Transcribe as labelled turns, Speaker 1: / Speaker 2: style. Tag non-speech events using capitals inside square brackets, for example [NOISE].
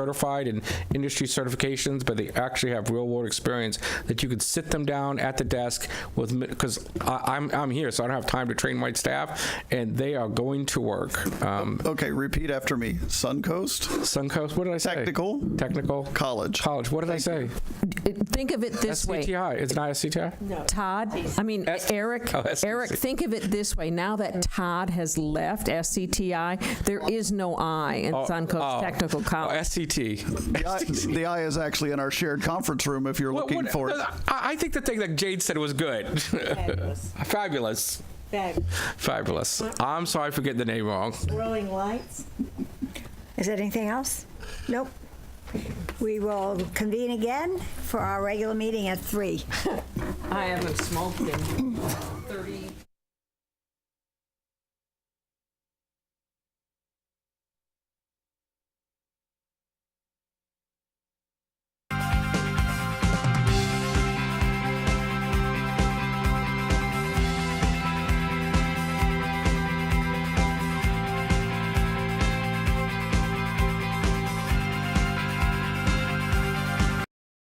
Speaker 1: certified and industry certifications, but they actually have real world experience that you could sit them down at the desk with, because I'm, I'm here, so I don't have time to train my staff, and they are going to work. Um,
Speaker 2: Okay, repeat after me. Suncoast
Speaker 1: Suncoast, what did I say?
Speaker 2: Technical.
Speaker 1: Technical.
Speaker 2: College.
Speaker 1: College, what did I say?
Speaker 3: Think of it this way.
Speaker 1: SCTI, it's not SCTI? No.
Speaker 3: Todd, I mean, Eric,
Speaker 1: Oh, SCTI.
Speaker 3: Eric, think of it this way. Now that Todd has left SCTI, there is no I in Suncoast Technical College.
Speaker 1: SCT.
Speaker 2: The I, the I is actually in our shared conference room if you're
Speaker 1: What-
Speaker 2: looking
Speaker 1: what-
Speaker 2: for it.
Speaker 1: I, I think the thing that Jade said was good.
Speaker 4: Fabulous.
Speaker 1: [LAUGHS] Fabulous.
Speaker 4: Fab.
Speaker 1: Fabulous. I'm sorry for getting the name wrong.
Speaker 4: Rolling lights.
Speaker 5: Is there anything else? Nope. We will convene again for our regular meeting at three.
Speaker 3: I haven't smoked in 30